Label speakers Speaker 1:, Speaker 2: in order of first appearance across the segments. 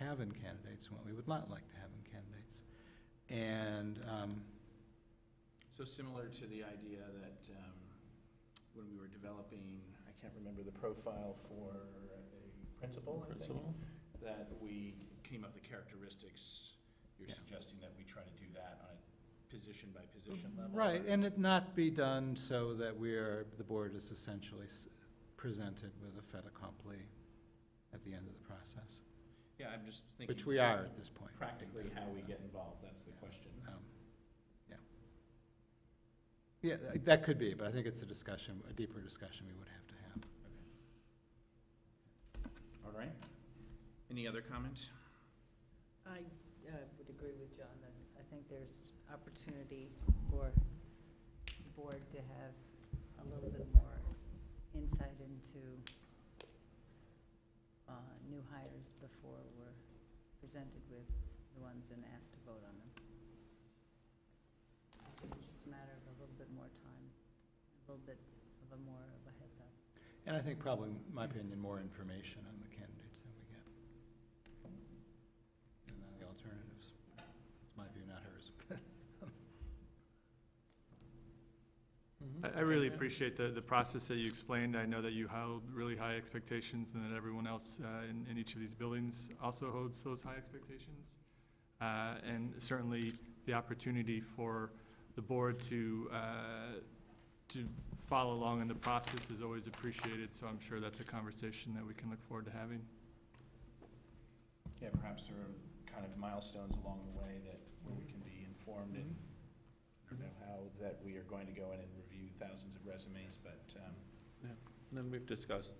Speaker 1: have in candidates and what we would not like to have in candidates. And, um,
Speaker 2: So similar to the idea that um, when we were developing, I can't remember the profile for a principal, I think,
Speaker 3: Principal?
Speaker 2: that we came up the characteristics, you're
Speaker 1: Yeah.
Speaker 2: suggesting that we try to do that on a position-by-position level?
Speaker 1: right, and it not be done so that we're, the board is essentially s- presented with a fait accompli at the end of the process,
Speaker 2: Yeah, I'm just thinking.
Speaker 1: which we are at this point.
Speaker 2: Practically how we get involved, that's the question.
Speaker 1: Um, Yeah. Yeah, tha- that could be, but I think it's a discussion, a deeper discussion we would have to have.
Speaker 2: All right. Any other comments?
Speaker 4: I uh, would agree with John that I think there's opportunity for the board to have a little bit more insight into uh, new hires before we're presented with the ones and asked to vote on them. I think it's just a matter of a little bit more time, a little bit of a more of a heads up.
Speaker 1: And I think probably, in my opinion, more information on the candidates than we get. And on the alternatives. It's my view, not hers.
Speaker 3: I, I really appreciate the, the process that you explained. I know that you held really high expectations and that everyone else uh, in, in each of these buildings also holds those high expectations. Uh, And certainly, the opportunity for the board to, uh, to follow along in the process is always appreciated, so I'm sure that's a conversation that we can look forward to having.
Speaker 2: Yeah, perhaps there are kind of milestones along the way that, where we can be informed and, I don't know how, that we are going to go in and review thousands of resumes, but, um,
Speaker 5: And Then we've discussed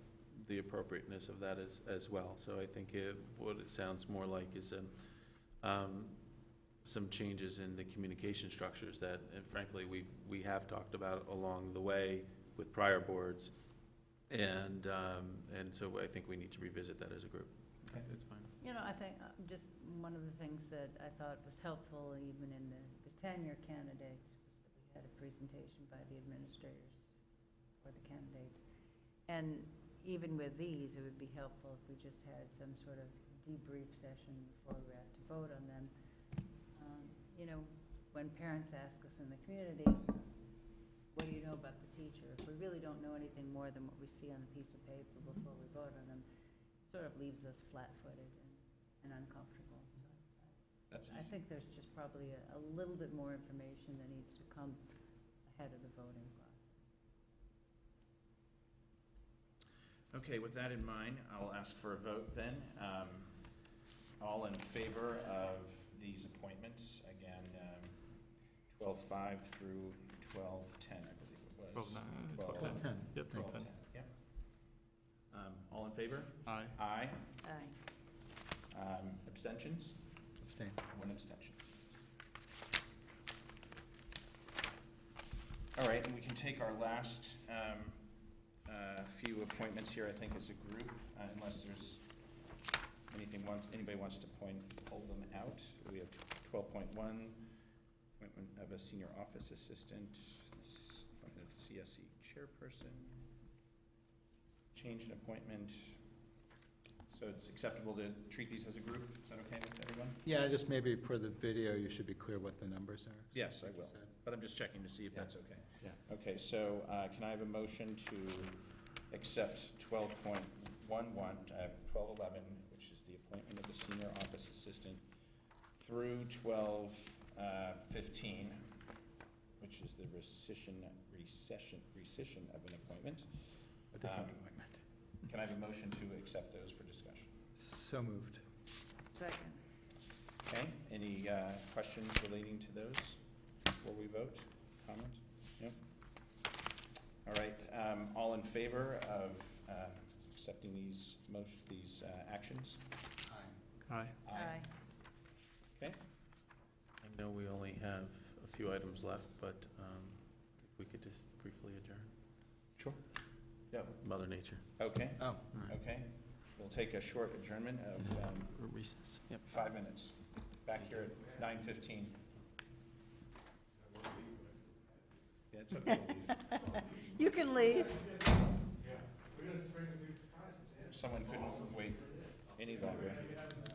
Speaker 5: the appropriateness of that as, as well. So I think it, what it sounds more like is, um, um, some changes in the communication structures that, and frankly, we, we have talked about along the way with prior boards. And, um, and so I think we need to revisit that as a group.
Speaker 2: Okay.
Speaker 5: It's fine.
Speaker 4: You know, I think, uh, just one of the things that I thought was helpful even in the the tenure candidates, was that we had a presentation by the administrators for the candidates. And even with these, it would be helpful if we just had some sort of debrief session before we asked to vote on them. Um, You know, when parents ask us in the community, what do you know about the teacher? If we really don't know anything more than what we see on the piece of paper before we vote on them, sort of leaves us flat-footed and, and uncomfortable.
Speaker 2: that's
Speaker 4: I
Speaker 2: easy.
Speaker 4: think there's just probably a, a little bit more information that needs to come ahead of the voting process.
Speaker 2: Okay, with that in mind, I'll ask for a vote then. Um, All in favor of these appointments, again, um, twelve-five through twelve-ten, I believe it was.
Speaker 3: Twelve nine,
Speaker 2: Twelve.
Speaker 3: twelve ten.
Speaker 1: Ten.
Speaker 3: Yep, twelve ten.
Speaker 2: 12-10, yeah. Um, All in favor?
Speaker 3: Aye.
Speaker 2: Aye.
Speaker 4: Aye.
Speaker 2: Um, Abstentions?
Speaker 1: Abstain.
Speaker 2: One abstention. All right, and we can take our last um, uh, few appointments here, I think, as a group, uh, unless there's anything, wants- anybody wants to point, pull them out. We have twelve point one, appointment of a senior office assistant, s- appointment of CSE chairperson, change in appointment. So it's acceptable to treat these as a group? Is that okay with everyone?
Speaker 1: Yeah, just maybe for the video, you should be clear what the numbers are.
Speaker 2: Yes, I will, but I'm just checking to see if
Speaker 1: Yeah.
Speaker 2: that's okay.
Speaker 1: Yeah.
Speaker 2: Okay, so uh, can I have a motion to accept twelve point one one, uh, twelve eleven, which is the appointment of the senior office assistant, through twelve uh, fifteen, which is the rescission, recession, rescission of an appointment?
Speaker 1: A different
Speaker 2: Um,
Speaker 1: appointment.
Speaker 2: Can I have a motion to accept those for discussion?
Speaker 1: So moved.
Speaker 4: Second.
Speaker 2: Okay, any uh, questions relating to those before we vote? Comments? No? All right, um, all in favor of uh, accepting these motion, these uh, actions?
Speaker 3: Aye.
Speaker 2: Okay,
Speaker 5: I know we only have a few items left, but um, if we could just briefly adjourn.
Speaker 2: Sure. Yeah.
Speaker 5: Mother Nature.
Speaker 2: okay,
Speaker 1: Oh,
Speaker 2: okay. We'll take a short adjournment of um,
Speaker 5: Recess. Yep.
Speaker 2: five minutes. Back here at nine fifteen. Yeah, it's okay.
Speaker 4: You can leave.
Speaker 2: Someone couldn't wait any longer.